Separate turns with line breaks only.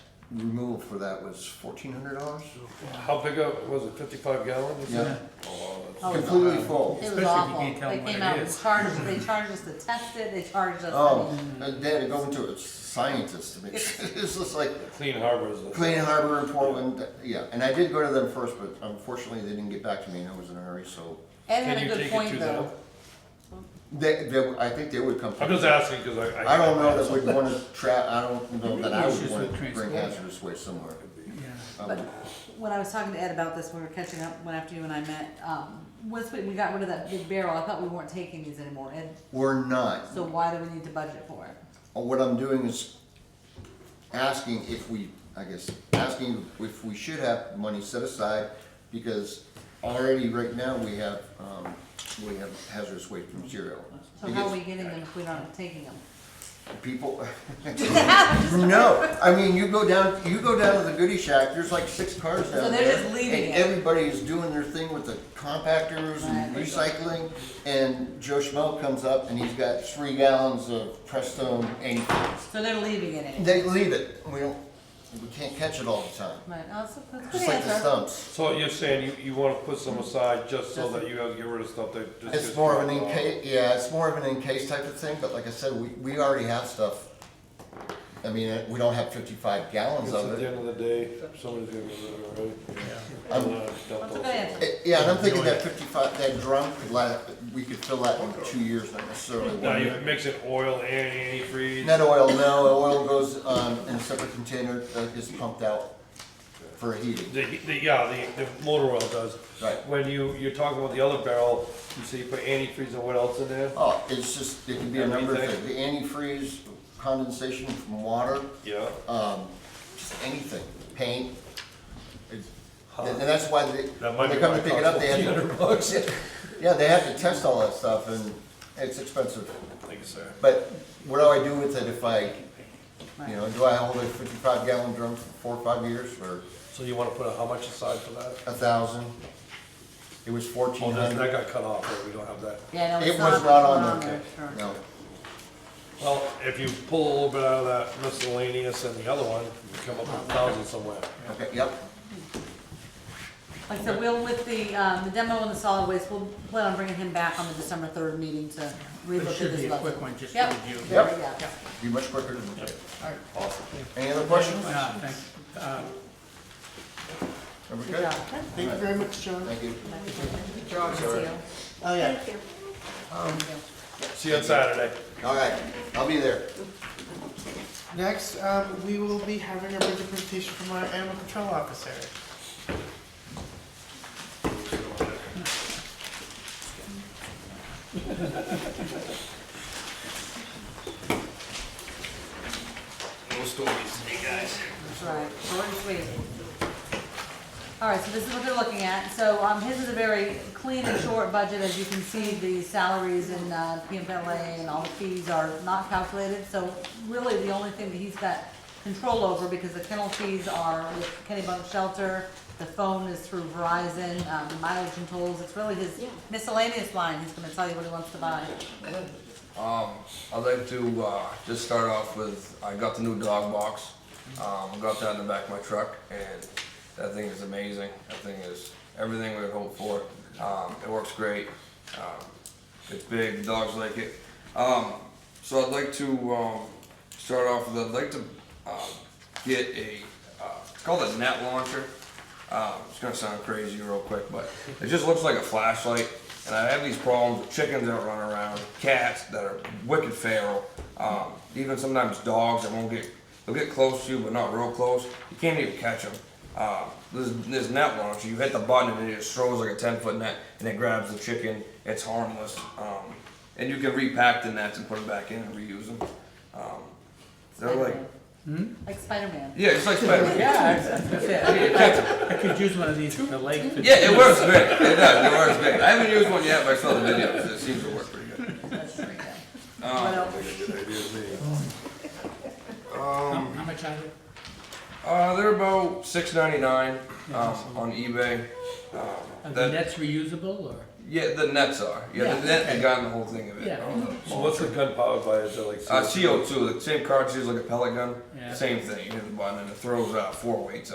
removal for that was fourteen hundred dollars?
How big of, was it fifty-five gallon? you said?
Yeah,
Oh, wow,
Oh,
that's-
it's-
completely full.
It
Especially if
was
you
awful.
can't tell
They
what
came
it
out and
is.
charged, they charged us to test it, they charged us.
Oh, and they had to go into a scientist to make sure, it's just like
Clean Harbors. is-
Clean Harbor in Portland, yeah, and I did go to them first, but unfortunately, they didn't get back to me, and I was in a hurry, so.
Ed
Can
had
you
a good
take it to them?
point though.
They, they, I think they would come.
I'm just asking, cause I.
I don't know that we'd wanna trap, I don't know that I would
Issues
wanna
with
bring
transport.
hazardous waste somewhere.
Yeah,
Um,
But when I was talking to Ed about this, when we were catching up, when after you and I met, um, once we, we got rid of that big barrel, I thought we weren't taking these anymore, Ed,
We're not,
so why do we need to budget for it?
what I'm doing is asking if we, I guess, asking if we should have money set aside, because already right now, we have, um, we have hazardous waste material.
So how are we getting them if we're not taking them?
People, no, I mean, you go down, you go down to the goodie shack, there's like six cars down
So
there.
they're just leaving
And
it.
everybody's doing their thing with the compactors and
Right.
recycling, and Joe Schmo comes up and he's got three gallons of Prestone ink.
So they're leaving it in.
They leave it, we don't, we can't catch it all the time,
Right, oh, so that's a
just
good
like the
answer.
stumps.
So you're saying you, you wanna put some aside just so that you have to get rid of stuff that just.
It's
gets
more of an
thrown out.
encase, yeah, it's more of an encase type of thing, but like I said, we, we already have stuff. I mean, uh, we don't have fifty-five gallons
Because
of
at
it.
the end of the day, somebody's gonna get rid of it, right?
I'm-
And, uh, dump
That's a
those
good
things.
answer.
Eh, Yeah, and I'm thinking that fifty-five, that drum could last, we could fill that in two years, not necessarily
Now,
one
you
year.
mix in oil and antifreeze.
Not oil, no, oil goes, um, in a separate container that is pumped out for heating.
The, the, yeah, the, the motor oil does.
Right.
When you, you're talking about the other barrel, you say you put antifreeze and what else in there?
Oh, it's just, it can be a number of
Everything.
things, the antifreeze, condensation from water,
Yeah.
um, just anything, paint. It's- And and that's why they, when
That might
they
be
come
why
to
it
pick it
costs
up, they have to, Oh,
1,500 bucks.
yeah, they have to test all that stuff and it's expensive.
Thank you, sir.
But what do I do with it if I You
Right.
know, do I hold a fifty-five gallon drum for four or five years or
So you wanna put a- how much aside for that?
a thousand? It was
Oh,
fourteen
that, that
hundred.
got cut off, right? We don't have that.
Yeah, no,
It
it's
was
not,
not on there,
sure.
no.
Well, if you pull a little bit out of that miscellaneous and the other one, you come up with a thousand somewhere.
Okay, yep,
Like I said, we'll, with the, um, the demo and the solid waste, we'll plan on bringing him back on the December third meeting to relook
But
at
it should
his
be a
budget.
quick one, just to
Yep,
review.
there we
Yep.
go.
be much quicker than,
Awesome.
any other questions? Are
Uh, thanks. Uh,
we
Good
good?
job.
Thank you very much, John.
Thank you.
Good job.
See you.
Oh, yeah.
See you on Saturday.
All right, I'll be there.
Next, um, we will be having a budget presentation from our animal control officer.
That's right, short and sweet. All right, so this is what they're looking at. So, um, his is a very clean and short budget, as you can see, the salaries and, uh, PMLA and all the fees are not calculated. So really, the only thing that he's got control over, because the kennel fees are with Kennebunk Shelter, the phone is through Verizon, um, the mileage and tolls, it's really his miscellaneous line, he's gonna tell you what he wants to buy.
Um, I'd like to uh, just start off with I got the new dog box. Um, got that in the back of my truck, and that thing is amazing. That thing is everything we had hoped for. Um, it works great. Um, it's big. The dogs like it. Um, so I'd like to um, start off with I'd like to um, get a uh, it's called a net launcher. Um, it's gonna sound crazy real quick, but it just looks like a flashlight. And I have these problems with chickens that run around, cats that are wicked feral, um, even sometimes dogs that won't get they'll get close to you but not real close. You can't even catch them. Uh, this, this net launcher, you hit the button and it just throws like a 10 foot net and it grabs the chicken. It's harmless. Um, and you can repack the nets and put them back in and reuse them. Um, they're like, hmm?
Like Spider-Man.
yeah, it's like Spider-Man.
Yeah, that's it.
You catch 'em.
I could use one of these for the lake. to-
Yeah, it works great. It does. It works great. I haven't used one yet, but I saw the videos. It seems to work pretty good.
That's pretty good. What
Um,
else?
How how much are they?
uh, they're about six ninety nine um, on eBay. Um,
Are the
that,
nets reusable or?
Yeah, the nets are. Yeah,
Yeah,
the net
okay.
that got in the whole thing of it.
Yeah.
So what's the gun powered by, is it like?
Uh, CO2, the same cartridge, like a pellet gun,
Yeah.
same thing. You hit the button and it throws out four weights